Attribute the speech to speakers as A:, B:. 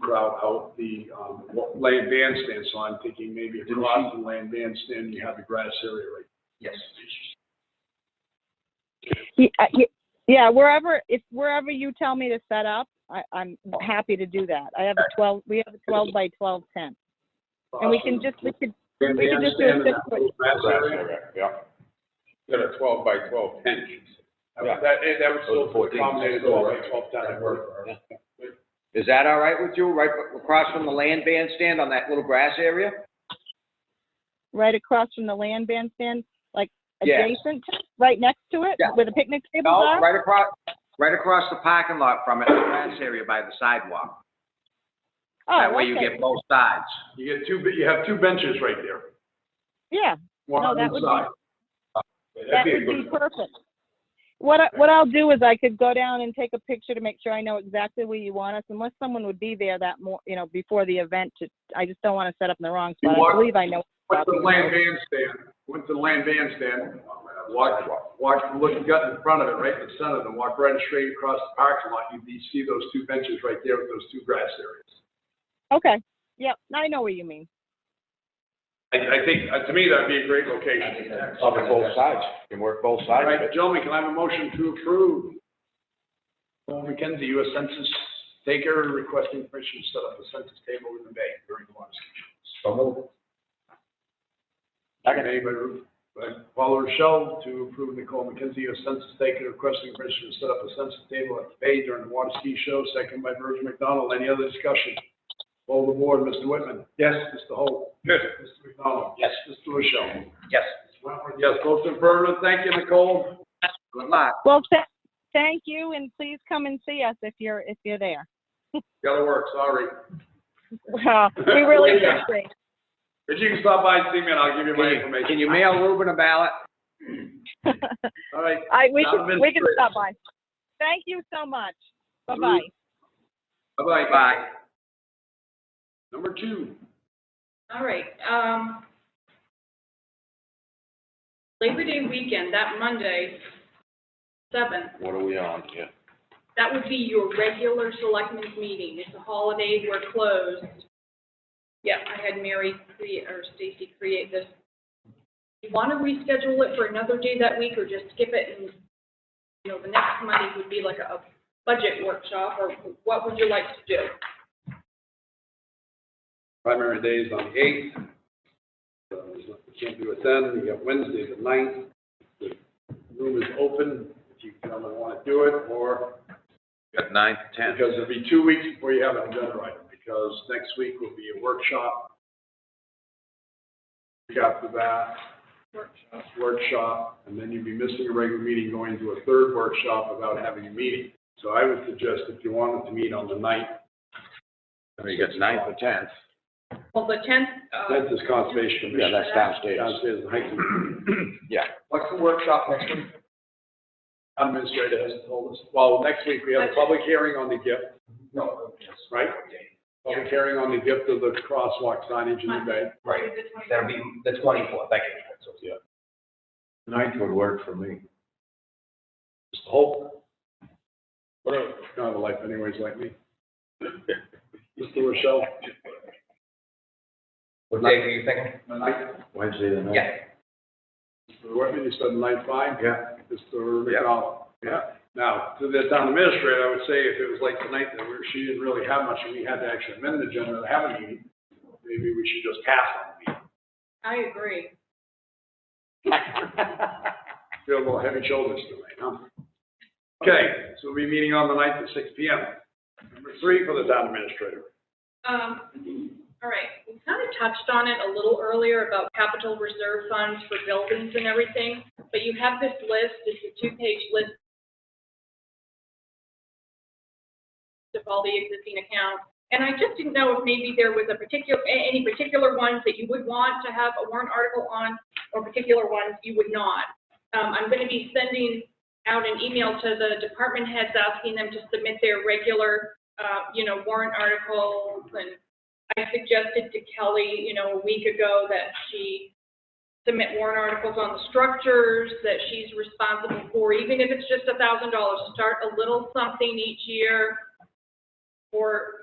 A: crowd out the, um, wa- land bandstand, so I'm thinking maybe across the land bandstand, you have the grass area right. Yes.
B: Yeah, y- uh, yeah, wherever, if wherever you tell me to set up, I, I'm happy to do that. I have a twelve, we have a twelve by twelve tent. And we can just, we could,
A: Land
B: we can just do a
A: bandstand and
B: six
A: that little grass
C: Grass
A: area.
C: area, yeah.
D: Got a twelve by
C: Oh,
D: twelve tent.
C: Yeah.
D: That, eh, that was
C: Those are
D: still
C: 14.
D: accommodated
C: Still
D: twelve by
C: works.
D: twelve tent.
C: That works. Is that all right with you, right b- across from the land bandstand on that little grass area?
B: right across from the land bandstand, like
C: Yeah.
B: adjacent, to- right next to it,
C: Yeah.
B: where the picnic tables
C: No,
B: are?
C: right across, right across the parking lot from it, the grass area by the sidewalk. That
B: Oh,
C: way you
B: okay.
C: get both sides.
A: You get two, be- you have two benches right there,
B: Yeah,
A: one
B: No,
A: on
B: that
A: each
B: would be-
A: side.
B: that
D: be a
B: would be
D: good-
B: perfect. What, I what I'll do is I could go down and take a picture to make sure I know exactly where you want us, unless someone would be there that more, you know, before the event to, I just don't want to set up in the wrong
A: You
B: spot. I
A: want-
B: believe I know.
A: Went to the land bandstand, went to the land bandstand, walked, walked, look, you got in front of it, right in the center, then walked right straight across the parking lot, you, you see those two benches right there with those two grass areas.
B: Okay, yep, I know what you mean.
A: I, I think, uh, to me, that'd be a great location.
C: Cover both sides. You can work both
A: All
C: sides.
A: right, gentlemen, can I have a motion to approve? Paul McKenzie, U.S. Census taker requesting permission to set up a census table in the bay during the water ski. Made by Ru- by Paul Rochelle to approve Nicole McKenzie, U.S. Census taker requesting permission to set up a census table at the bay during the water ski show, second by Virgil McDonald. Any other discussion? All the board, Mr. Whitman. Yes. Mr. Holt.
D: Yes.
A: Mr. McDonald.
C: Yes.
A: Mr. Rochelle.
C: Yes.
A: Yes, most affirmative. Thank you, Nicole.
C: Good luck.
B: Well, tha- thank you, and please come and see us if you're, if you're there.
A: Gotta work, sorry.
B: Well, we really
A: Yeah.
B: appreciate
A: If you can stop by and see me, and I'll give you my
C: Can you,
A: information.
C: can you mail Ruben a ballot?
B: it.
A: All right,
B: I, we can,
A: Donovan
B: we can
A: Fritz.
B: stop by. Thank you so much. Bye-bye.
A: bye-bye.
C: Bye.
A: Number two.
E: All right, um, Labor Day weekend, that Monday, seventh,
C: What are we on here?
E: that would be your regular selectmen's meeting. It's a holiday, we're closed. Yeah, I had Mary create, or Stacy create this. You want to reschedule it for another day that week or just skip it and, you know, the next Monday would be like a a budget workshop or what would you like to do?
A: Primary day is on the eighth. So there's no- we Can't do it then, we got Wednesday the ninth. The room is open, if you gentlemen want to do it, or,
C: At nine to ten.
A: because it'll be two weeks before you have an agenda item, because next week will be a workshop. We got the that,
E: Workshop.
A: workshop, and then you'd be missing a regular meeting, going to a third workshop without having a meeting. So I would suggest if you wanted to meet on the ninth,
C: You got ninth or tenth.
E: Well, the tenth, uh,
A: That's this conservation
C: Yeah,
A: commission.
C: that's downstairs.
A: Downstairs, the hiking.
C: Yeah.
A: What's the workshop next week? Administrator hasn't told us. Well, next week we have a public hearing on the gift. No. Right? Public hearing on the gift of the crosswalk signage in the bay.
F: Right, that'll be the twenty-fourth, I can, so, yeah.
D: Ninth would work for me.
A: Just hope. Whatever, kind of a life anyways like me. Mr. Rochelle?
F: What day were you thinking?
D: Wednesday the
F: Yeah,
A: Mr. Whitman, you said nine five?
D: Yeah.
A: Mr.
C: Yeah.
A: McDonald. Yeah. Now, to the town administrator, I would say if it was like tonight that we're, she didn't really have much and we had to actually amend the agenda to have a meeting, maybe we should just pass on the meeting.
E: I agree.
A: Feel a little heavy shoulders tonight, huh? Okay, so we'll be meeting on the ninth at six P M. Number three for the town administrator.
E: Um, all right, we kind of touched on it a little earlier about capital reserve funds for buildings and everything, but you have this list, it's a two-page list of all the existing accounts, and I just didn't know if maybe there was a particular, a- any particular ones that you would want to have a warrant article on, or particular ones you would not. Um, I'm gonna be sending out an email to the department heads asking them to submit their regular uh, you know, warrant articles, and I suggested to Kelly, you know, a week ago that she submit warrant articles on the structures that she's responsible for, even if it's just a thousand dollars, start a little something each year for